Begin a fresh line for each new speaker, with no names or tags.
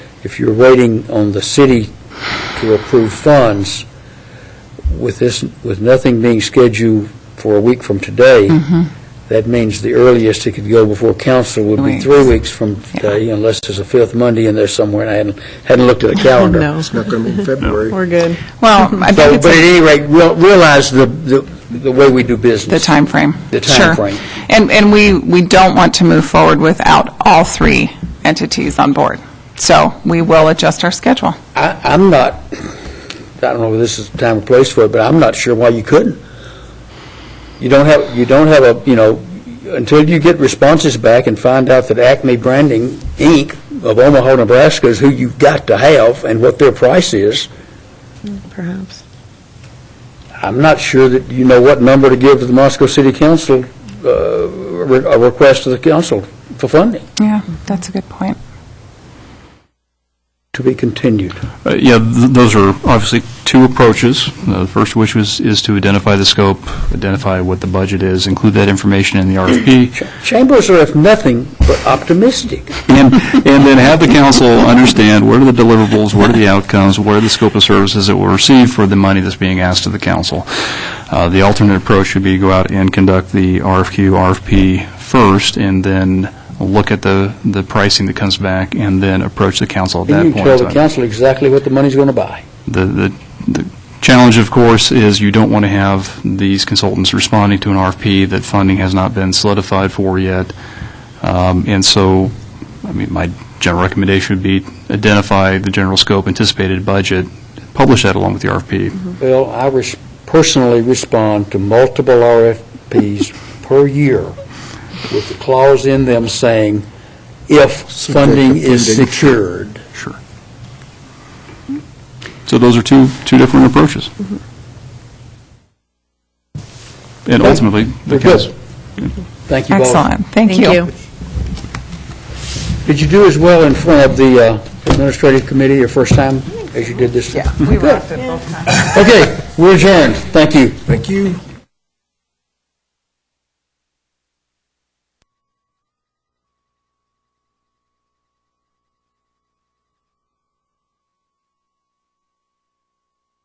if you're waiting on the city to approve funds, with this, with nothing being scheduled for a week from today, that means the earliest it could go before council would be
Weeks.
three weeks from today, unless there's a fifth Monday in there somewhere, and I hadn't, hadn't looked at the calendar.
No,
It's not going to be in February.
we're good.
Well, I
So,
think it's
but at
a-
any rate, real- realize the, the the way we do business.
the timeframe.
The
Sure.
timeframe.
And, and we, we don't want to move forward without all three entities on board. So we will adjust our schedule.
I, I'm not, I don't know if this is the time or place for it, but I'm not sure why you couldn't. You don't have, you don't have a, you know, until you get responses back and find out that Acme Branding, Inc. of Omaha, Nebraska is who you've got to have and what their price is,
Perhaps.
I'm not sure that you know what number to give to the Moscow City Council, uh, re- a request to the council for funding,
Yeah, that's a good point.
to be continued.
Uh, Yeah, th- those are obviously two approaches. Uh, The first of which was, is to identify the scope, identify what the budget is, include that information in the RFP,
Chambers are if nothing but optimistic.
and and then have the council understand what are the deliverables, what are the outcomes, what are the scope of services that will receive for the money that's being asked of the council. Uh, The alternate approach would be go out and conduct the RFQ, RFP first, and then look at the the pricing that comes back, and then approach the council at that
And
point.
you tell
in
the
time.
council exactly what the money's going to buy.
The- The the challenge, of course, is you don't want to have these consultants responding to an RFP that funding has not been solidified for yet. Um, And so, I mean, my general recommendation would be identify the general scope, anticipated budget, publish that along with the RFP.
Well, I res- personally respond to multiple RFPs per year with the clause in them saying, if funding is
funding.
secured.
Sure. So those are two, two different approaches. And
Okay.
ultimately, the
We're
council.
good. Thank you both.
Excellent. Thank you.
Did you do as well in front of the uh, administrative committee your first time as you did this? time?
Yeah, we wrapped it both times.
Okay, we're adjourned. Thank you.
Thank you.